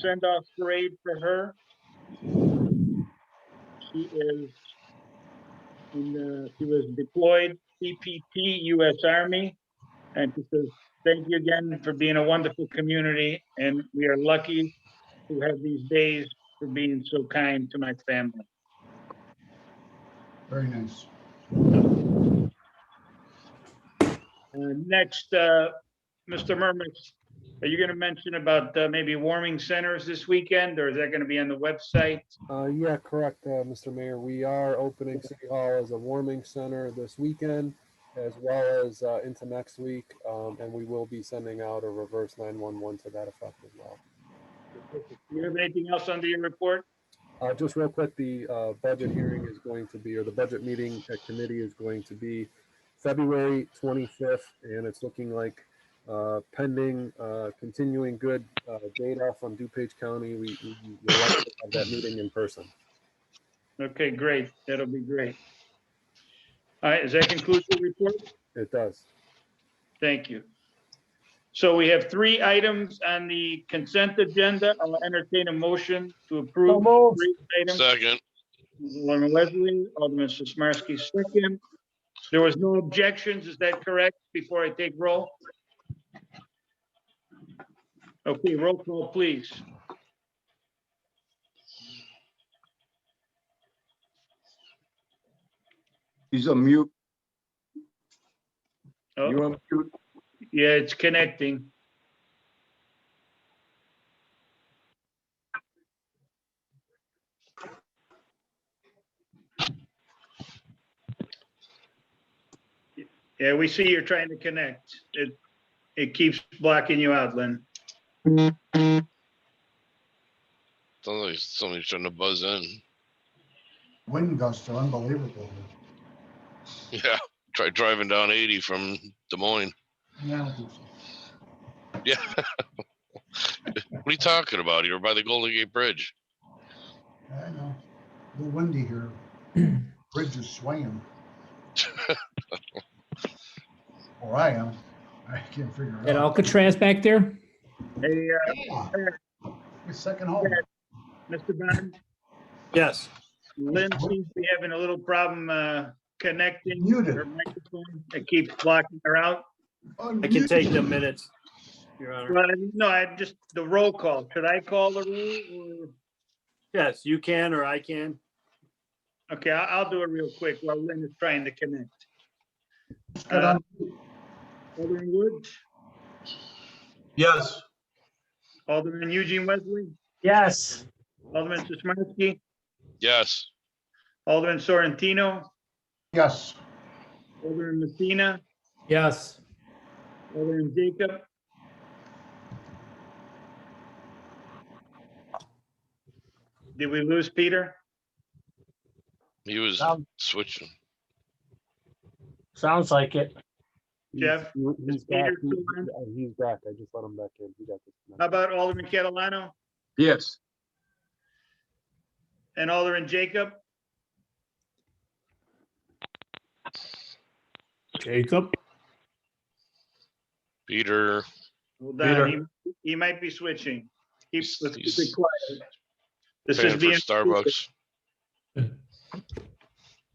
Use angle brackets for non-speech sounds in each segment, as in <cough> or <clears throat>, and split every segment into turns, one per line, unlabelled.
send-off parade for her. She is in the, she was deployed CPT US Army. And she says, thank you again for being a wonderful community and we are lucky to have these days for being so kind to my family.
Very nice.
Uh, Next, uh, Mr. Murmas, are you going to mention about uh, maybe warming centers this weekend, or is that going to be on the website?
Uh, yeah, correct, uh, Mr. Mayor. We are opening City Hall as a warming center this weekend as well as, uh, into next week. Um, and we will be sending out a reverse nine-one-one to that effect as well.
Do you have anything else under your report?
Uh, just real quick, the, uh, budget hearing is going to be, or the budget meeting at committee is going to be February twenty-fifth, and it's looking like, uh, pending, uh, continuing good, uh, data from DuPage County, we, we, we'll likely have that meeting in person.
Okay, great. That'll be great. All right, does that conclude your report?
It does.
Thank you. So we have three items on the consent agenda. I'll entertain a motion to approve. the
moved.
three items.
Second,
Alderman Leslie, Alderman Sismarski, second. There was no objections, is that correct, before I take roll? Okay, roll call, please.
He's on mute. You're
Oh,
on mute.
Yeah, it's connecting. Yeah, we see you're trying to connect. It, it keeps blocking you out, Lynn.
sounds like somebody's trying to buzz in.
Wind gusts are unbelievable.
Yeah, try driving down eighty from Des Moines.
Yeah.
Yeah. <laughs> What are you talking about? You're by the Golden Gate Bridge.
I know. A little windy
<clears throat>
here. Bridge is swaying. Or I am. I can't figure it
At
out.
Alcatraz back there?
Hey, uh,
Yeah. It's second home.
Mr. Bond,
Yes.
Lynn seems to be having a little problem uh, connecting her
Muted.
microphone. It keeps blocking her out.
I can take the minutes, Your Honor.
Well, no, I just, the roll call. Should I call the roll?
Yes, you can or I can.
or- Okay, I- I'll do it real quick while Lynn is trying to connect. Uh,
Good on-
Alderman Woods,
Yes.
Alderman Eugene Wesley,
Yes.
Alderman Sismarski,
Yes,
Alderman Sorrentino,
Yes.
Alderman Messina,
Yes.
Alderman Jacob. Did we lose Peter?
he was
Um,
switching.
Sounds like it.
Jeff,
He's- He's back.
Peter
He-
still on?
uh, He's back. I just let him back in. He got
How
disconnected.
about Alderman Catalano
Yes.
and Alderman Jacob?
Jacob?
Peter,
Well, Don, he, he might be switching. Keep,
He's-
let's keep
he's
it quiet. This is
paying for
being.
Starbucks.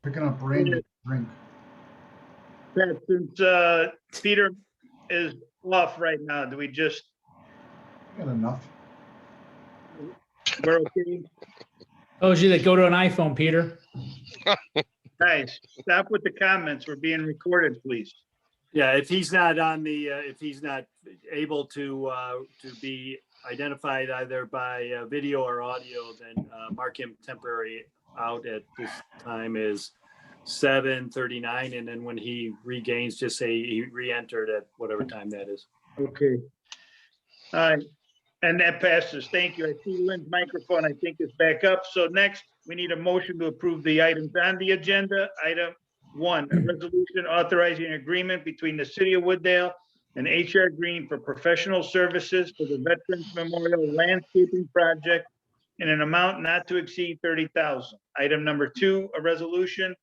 Picking up rain to drink.
Pat, Since, uh, Peter is off right now, do we just,
Got enough.
we're okay?
Told you Oh, that go to an iPhone, Peter.
Guys, stop with the comments. We're being recorded, please.
Yeah, if he's not on the, uh, if he's not able to, uh, to be identified either by uh, video or audio, then uh, mark him temporary out at this time is seven thirty-nine, and then when he regains, just say he re-entered at whatever time that is.
Okay. All right, and that passes. Thank you. I see Lynn's microphone, I think, is back up. So next, we need a motion to approve the items on the agenda. Item one, a resolution authorizing an agreement between the city of Wooddale and HR Green for professional services for the Veterans Memorial Landscaping Project in an amount not to exceed thirty thousand. Item number two, a resolution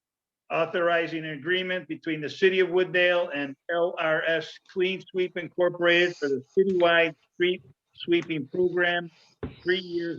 authorizing an agreement between the City of Wooddale and LRS Clean Sweep Incorporated for the citywide street sweeping program, three years